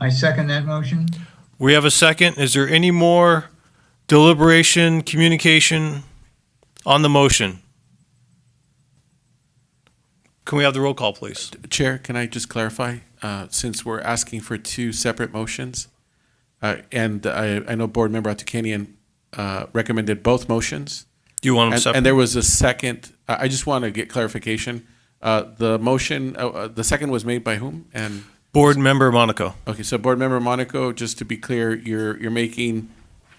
I second that motion. We have a second. Is there any more deliberation, communication on the motion? Can we have the roll call, please? Chair, can I just clarify, uh, since we're asking for two separate motions? uh, And I, I know Board Member Atukanian uh, recommended both motions. Do you want them And, separate? and there was a second, I, I just want to get clarification. Uh, The motion, uh, uh, the second was made by whom? And, Board Member Monaco. okay, so Board Member Monaco, just to be clear, you're, you're making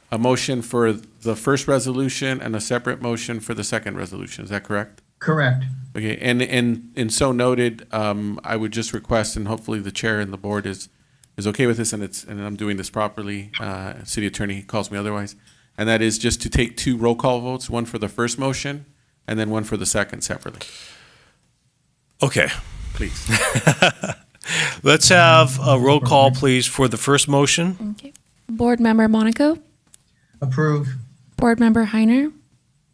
a motion for the first resolution and a separate motion for the second resolution, is that correct? Correct. Okay, and, and, and so noted, um, I would just request, and hopefully the chair and the board is, is okay with this, and it's, and I'm doing this properly, uh, city attorney calls me otherwise, and that is just to take two roll call votes, one for the first motion, and then one for the second separately, Okay, please. let's have a roll call, please, for the first motion. Okay. Board Member Monaco, Approved. Board Member Heiner,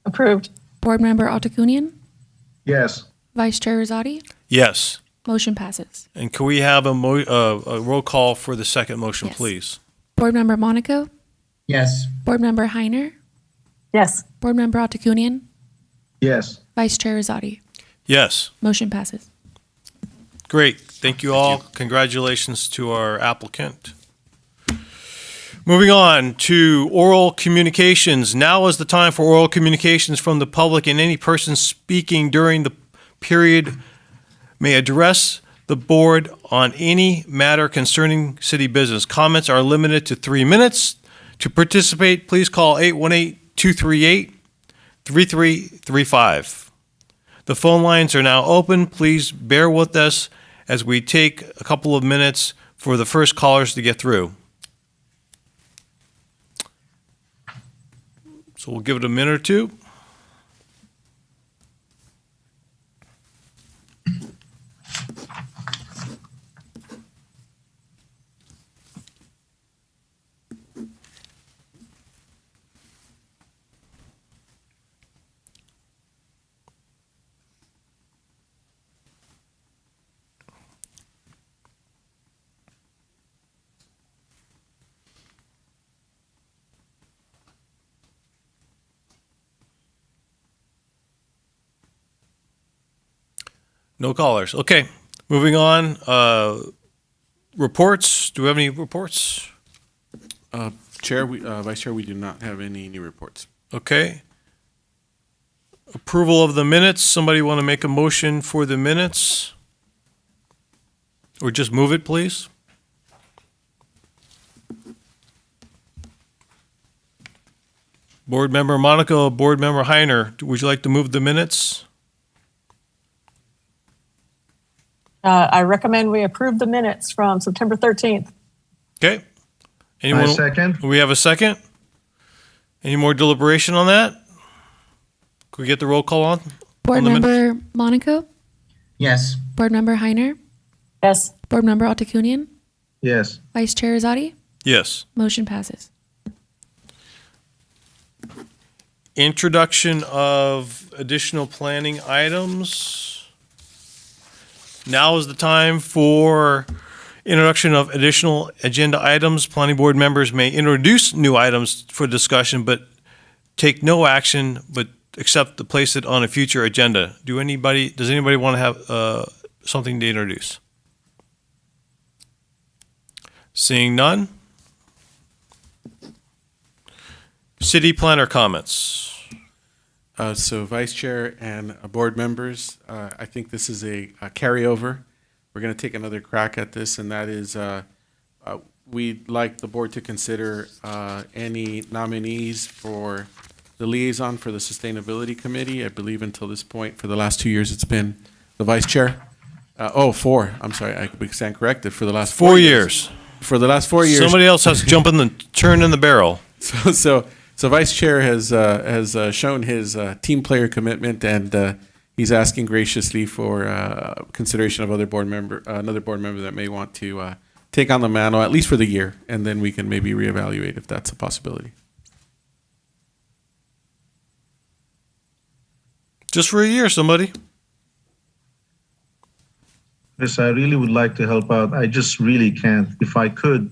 Approved. Board Member Autokunian, Yes. Vice Chair Rosati. Yes. Motion passes. And can we have a mo, uh, a roll call for the second motion, Yes. please? Board Member Monaco, Yes. Board Member Heiner, Yes. Board Member Autokunian, Yes. Vice Chair Rosati. Yes. Motion passes. Great. Thank you all. Congratulations to our applicant. Moving on to oral communications. Now is the time for oral communications from the public, and any person speaking during the period may address the board on any matter concerning city business. Comments are limited to three minutes. To participate, please call 818-238-3335. The phone lines are now open. Please bear with us as we take a couple of minutes for the first callers to get through. So we'll give it a minute or two. No callers. Okay, moving on. Uh, reports. Do we have any reports? Uh, Chair, we, uh, Vice Chair, we do not have any new reports. Okay. Approval of the minutes. Somebody want to make a motion for the minutes? Or just move it, please? Board Member Monaco, Board Member Heiner, would you like to move the minutes? Uh, I recommend we approve the minutes from September 13th. Okay. Anyone? second. We have a second? Any more deliberation on that? Could we get the roll call on? Board On the minutes. Member Monaco, Yes. Board Member Heiner, Yes. Board Member Autokunian, Yes. Vice Chair Rosati. Yes. Motion passes. introduction of additional planning items. Now is the time for introduction of additional agenda items. Planning board members may introduce new items for discussion, but take no action, but except to place it on a future agenda. Do anybody, does anybody want to have uh, something to introduce? Seeing none? City planner comments. Uh, So Vice Chair and uh, Board members, uh, I think this is a a carryover. We're going to take another crack at this, and that is, uh, uh, we'd like the board to consider uh, any nominees for the liaison for the Sustainability Committee. I believe until this point, for the last two years, it's been the Vice Chair. Uh, Oh, four, I'm sorry, I we stand corrected, for the last four Four years. years. For the last four years. Somebody else has to jump in the turn in the barrel. So, so, so Vice Chair has uh, has uh, shown his uh, team player commitment, and uh, he's asking graciously for uh, consideration of other board member, uh, another board member that may want to uh, take on the mantle at least for the year, and then we can maybe reevaluate if that's a possibility. Just for a year, somebody. Yes, I really would like to help out. I just really can't. If I could,